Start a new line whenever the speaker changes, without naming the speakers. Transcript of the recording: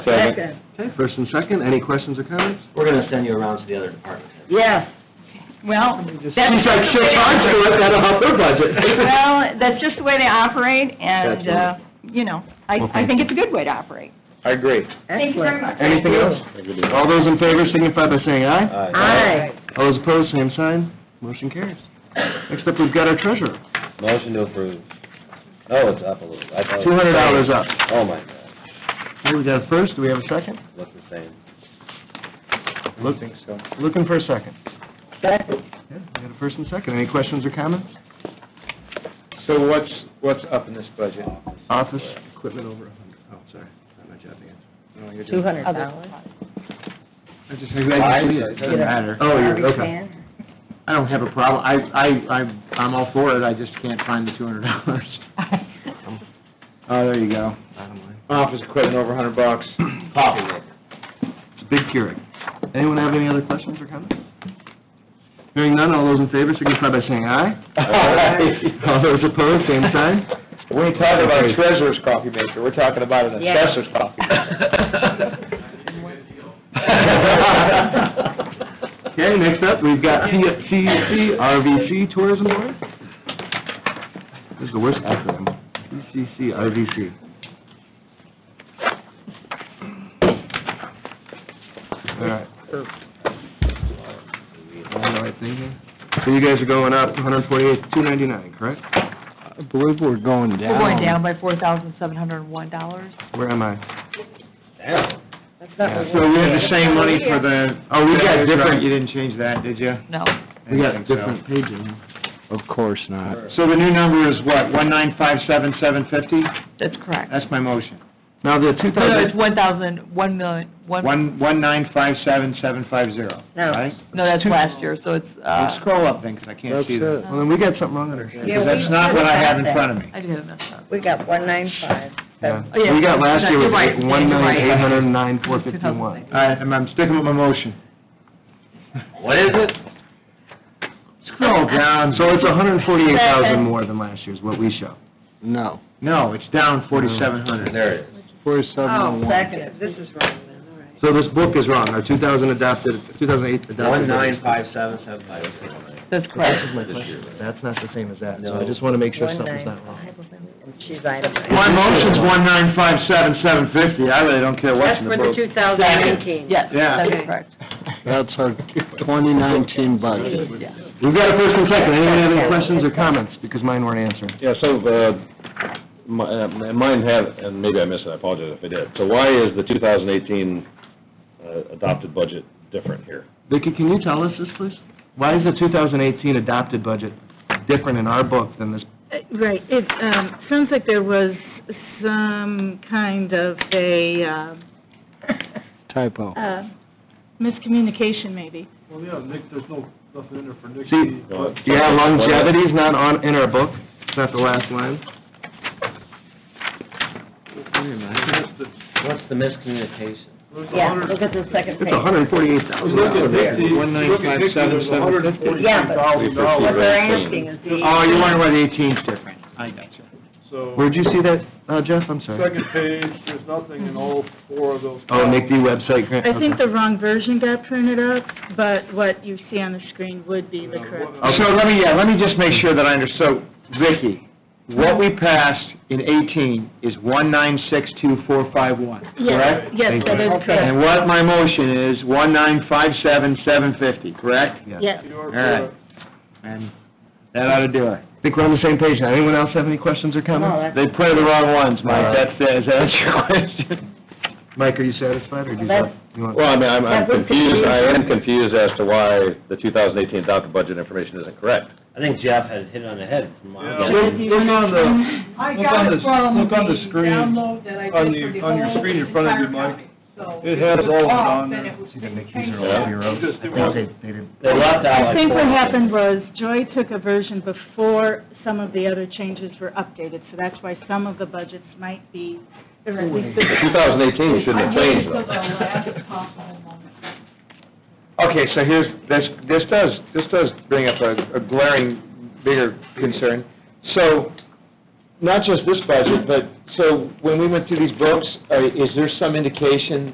Second.
Okay, first and second, any questions or comments?
We're going to send you around to the other departments.
Yes. Well, that's.
She's like, she'll charge to it, that'll help their budget.
Well, that's just the way they operate, and, uh, you know, I, I
Okay.
think it's a good way to operate.
I agree.
Thank you very much.
Anything else? All those in favor signify by saying aye.
Aye.
All those opposed, same sign, motion carries. Next up, we've got our treasurer,
Motion to approve. Oh, it's up a little. I thought it was
two hundred dollars up.
the same. Oh, my God,
Okay, we got a first, do we have a second?
looks the same.
Look- Looking for a second. Second. We got a first and second, any questions or comments?
So what's, what's up in this budget?
Office equipment over a hundred. Oh, sorry, not my job to answer.
Two hundred.
I just, I didn't see it.
Doesn't matter.
Oh, you're, okay.
I don't have a problem. I, I, I'm, I'm all for it. I just can't find the two hundred dollars. Oh, there you go. Office equipment over a hundred bucks.
Coffee maker.
It's a big Keurig. Anyone have any other questions or comments? Hearing none, all those in favor signify by saying aye. All those opposed, same sign.
We ain't talking about a treasurer's coffee maker. We're talking about an assessor's coffee.
Okay, next up, we've got CCC, RVC Tourism Board. This is the worst acronym, CCC, RVC. All right. Am I on the right thing here? So you guys are going up 148, 299, correct?
I believe we're going down.
We're going down by four thousand seven hundred and one dollars.
Where am I?
Damn.
Yeah,
So we have the same money for the.
Oh, we got different,
You didn't change that, did you?
No,
we got different pages.
Of course not.
So the new number is what, 1957750?
that's correct.
That's my motion.
Now, the
No, no,
2000,
it's one thousand, one million, one,
One, one nine five seven seven five zero, right?
no, that's last year, so it's,
Well,
uh,
Scroll up then, because I can't see that.
well, then we got something wrong on our sheet.
Because that's not what I have in front of me.
I do have a mess up.
We got one nine five.
Yeah.
Oh, yeah.
We got last year was
You're right.
like one
You're
million
right.
eight hundred and nine four fifty-one.
All right, I'm, I'm sticking with my motion.
What is it?
Scroll down.
So it's a hundred and forty-eight thousand more than last year's, what we show.
No. No, it's down forty-seven hundred.
Mm-hmm. Oh,
There it is.
Forty-seven oh one.
Second, this is wrong then, all right.
So this book is wrong, our two thousand adopted, two thousand eight adopted.
One nine five seven seven five zero.
That's
This
correct.
is my question, that's not the same as that, so
No.
I just wanna make sure
One
something's
nine
not wrong.
five, and she's itemized.
My motion's one nine five seven seven fifty. I really don't care what's
That's
in
for
the
the
book.
two thousand nineteen.
Yes,
Yeah.
that's correct.
That's our twenty nineteen budget.
We've got a first and second, anyone have any questions or comments, because mine weren't answered.
Yeah, so, uh, mi- uh, mine have, and maybe I missed it, I apologize if I did. So why is the 2018 uh, adopted budget different here?
Vicki, can you tell us this, please? Why is the two thousand eighteen adopted budget different in our book than this?
Uh, Right, it, um, sounds like there was some kind of a, um,
Typo.
uh, miscommunication maybe.
Well, yeah, Nick, there's no, nothing in there for Nick.
See, uh,
Well,
yeah, longevity's not on, in our book, it's not the last line.
What's the miscommunication?
Yeah, look at the second
It's
page.
a hundred and forty-eight thousand
Look at
dollars.
Nicky, look at Nicky, there's a hundred and
Yeah,
forty-three
but- What
thousand dollars,
they're asking is the.
Oh, you're wondering why the eighteen's different. I got you.
so,
Where'd you see that, uh, Jeff? I'm sorry.
second page, there's nothing in all four of those.
Oh, Nick D. website grant,
I think
okay.
the wrong version got printed up, but what you see on the screen would be the correct.
So let me, yeah, let me just make sure that I understand. So, Vicki, what we passed in 18 is 1962451, correct?
Yes, yes, that is correct,
And what my motion is, 1957750, correct?
yes.
You're
All right. And that ought to do it.
Think we're on the same page now. Anyone else have any questions or comments?
No, that's,
They printed the wrong ones,
All
Mike,
right.
that's, is that your question?
Mike, are you satisfied, or do you
That's-
you want?
Well, I mean, I'm- I'm
That was
confused, I am
confusing.
confused as to why the 2018 adopted budget information isn't correct.
I think Jeff had hit it on the head from my...
Yeah. Look- look on the-
I
Look
got
on the
it
s-
from the
look on the screen,
download that I did for
on
the
the- on your
whole
screen in front of you,
entire
Mike.
copy. So
It has all of it
was off,
on
and
there.
it was
See, then Nick, these
changed
are all
out.
your own.
Just do
I
one.
think they- they did-
They left out
I
like
think what
four.
happened was Joy took a version before some of the other changes were updated, so that's why some of the budgets might be, or at least the
2018, you shouldn't
I
have
waited
changed
till the
that.
last possible moment.
Okay, so here's, this, this does, this does bring up a a glaring, bigger concern. So, not just this budget, but, so when we went through these books, uh, is there some indication